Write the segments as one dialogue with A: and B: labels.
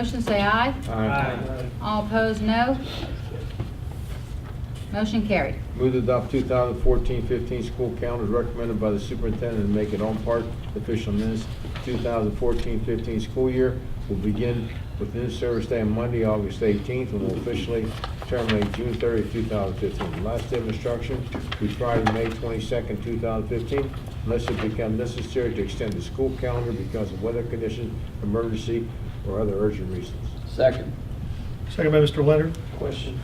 A: Motion say aye.
B: Aye.
A: All opposed, no. Motion carried.
B: Move to adopt 2014-15 school calendar as recommended by the superintendent and make it on part official minutes. 2014-15 school year will begin with new service day on Monday, August 18th, and will officially terminate June 30th, 2015. Last day of instruction will be Friday, May 22nd, 2015, unless it becomes necessary to extend the school calendar because of weather conditions, emergency, or other urgent reasons.
C: Second.
D: Second by Mr. Leonard.
C: Question.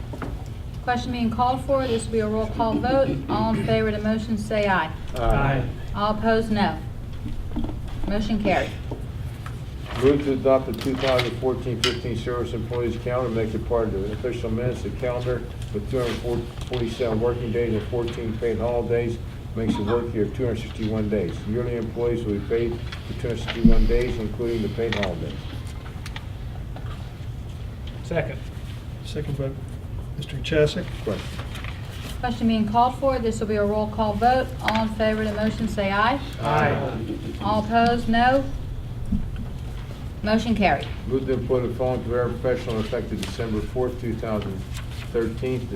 A: Question being called for. This will be a roll call vote. All in favor of the motion say aye. All opposed, no. Motion carried.
B: Move to adopt the 2014-15 service employees calendar, make it part of the official minutes. The calendar with 247 working days and 14 paid holidays makes the work year 261 days. Yearly employees will be paid for 261 days, including the paid holidays.
E: Second.
D: Second by Mr. Chesick.
B: Question?
A: Question being called for. This will be a roll call vote. All in favor of the motion say aye.
E: Aye.
A: All opposed, no. Motion carried.
B: Move to employ the following paraprofessional effective December 4th, 2013.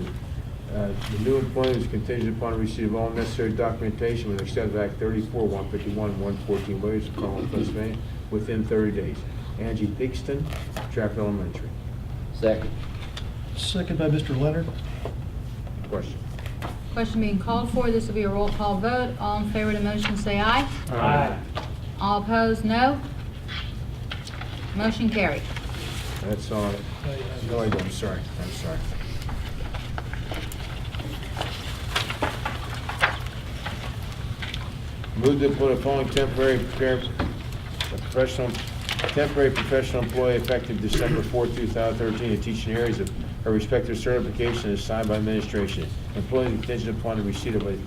B: The uh, the new employment is contingent upon receipt of all necessary documentation with extent of Act 34, 151, and 114 Williams, Commonwealth, Pennsylvania, within 30 days. Angie Dixon, Trap Elementary.
C: Second.
D: Second by Mr. Leonard.
B: Question?
A: Question being called for. This will be a roll call vote. All in favor of the motion say aye. All opposed, no. Motion carried.
B: That's all. No, I don't, I'm sorry, I'm sorry. Move to put the following temporary prepar- professional, temporary professional employee effective December 4, 2013, to teach in areas of her respective certification as signed by administration. Employee contingent upon the receipt of a,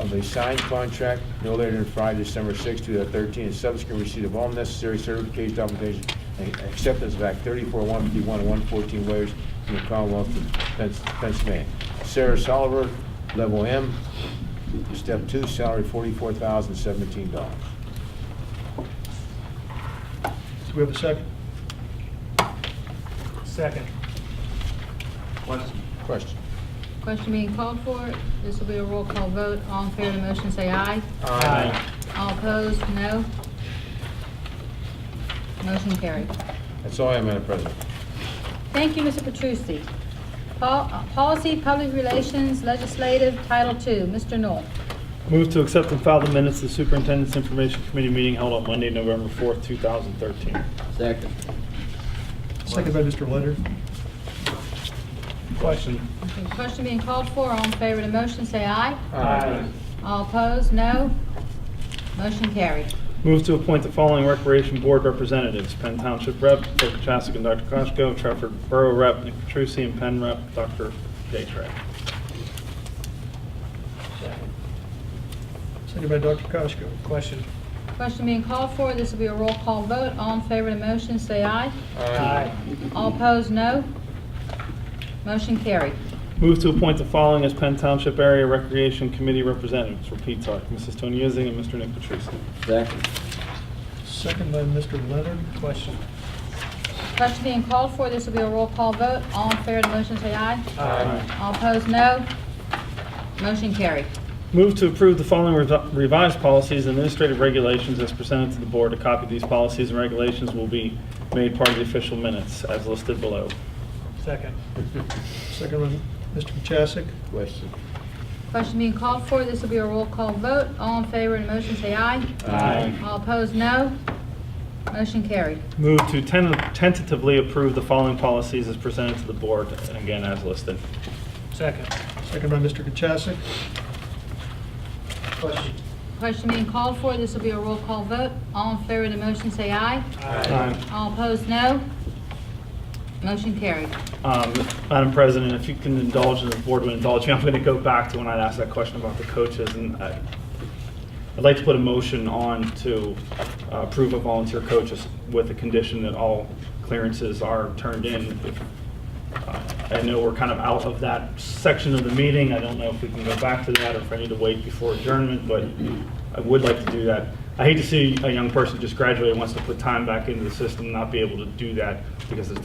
B: of a signed contract no later than Friday, December 6, 2013, and subsequent receipt of all necessary certification documentation and acceptance of Act 34, 151, and 114 waivers from the Commonwealth of Pens- Pennsylvania. Sarah Soliver, Level M, Step 2, salary $44,017.
D: Do we have a second?
E: Second.
B: Question?
A: Question being called for. This will be a roll call vote. All in favor of the motion, say aye. All opposed, no. Motion carried.
B: That's all I have, Madam President.
A: Thank you, Mr. Petrucci. Pol- uh, Policy, Public Relations, Legislative, Title II, Mr. Knoll.
E: Move to accept and file the minutes of the Superintendent's Information Committee meeting held on Monday, November 4th, 2013.
C: Second.
D: Second by Mr. Leonard.
E: Question.
A: Okay, Question being called for. All in favor of the motion, say aye.
E: Aye.
A: All opposed, no. Motion carried.
E: Move to appoint the following Recreation Board representatives: Penn Township Rep. Dr. Chasik and Dr. Koshko, Trafford Borough Rep. Nick Petrusi, and Penn Rep. Dr. J. Trey.
D: Second by Dr. Koschko.
E: Question.
A: Question being called for. This will be a roll call vote. All in favor of the motion, say aye. All opposed, no. Motion carried.
E: Move to appoint the following as Penn Township Area Recreation Committee representatives for PTARC: Mrs. Tony Ising and Mr. Nick Petrusi.
C: Second.
D: Second by Mr. Leonard.
E: Question.
A: Question being called for, this will be a roll call vote. All in favor of the motion, say aye.
E: Aye.
A: All opposed, no. Motion carried.
E: Move to approve the following revi- revised policies and administrative regulations as presented to the board. A copy of these policies and regulations will be made part of the official minutes as listed below.
D: Second. Second by Mr. Chesick.
B: Question?
A: Question being called for, this will be a roll call vote. All in favor of the motion, say aye.
B: Um,
E: Aye.
A: All opposed, no. Motion carried.
E: Move to ten- tentatively approve the following policies as presented to the board, and again, as listed.
D: Second. Second by Mr. Chesick. Question.
A: Question being called for, this will be a roll call vote. All in favor of the motion, say aye.
E: Aye.
A: All opposed, no. Motion carried.
E: Um, Madam President, if you can indulge, and the board would indulge me, I'm going to go back to when I asked that question about the coaches, and I- I'd like to put a motion on to uh, approve of volunteer coaches with the condition that all clearances are turned in. Uh, I know we're kind of out of that section of the meeting, I don't know if we can go back to that, or if I need to wait before adjournment, but I would like to do that. I hate to see a young person just graduate, wants to put time back into the system, not be able to do that because it's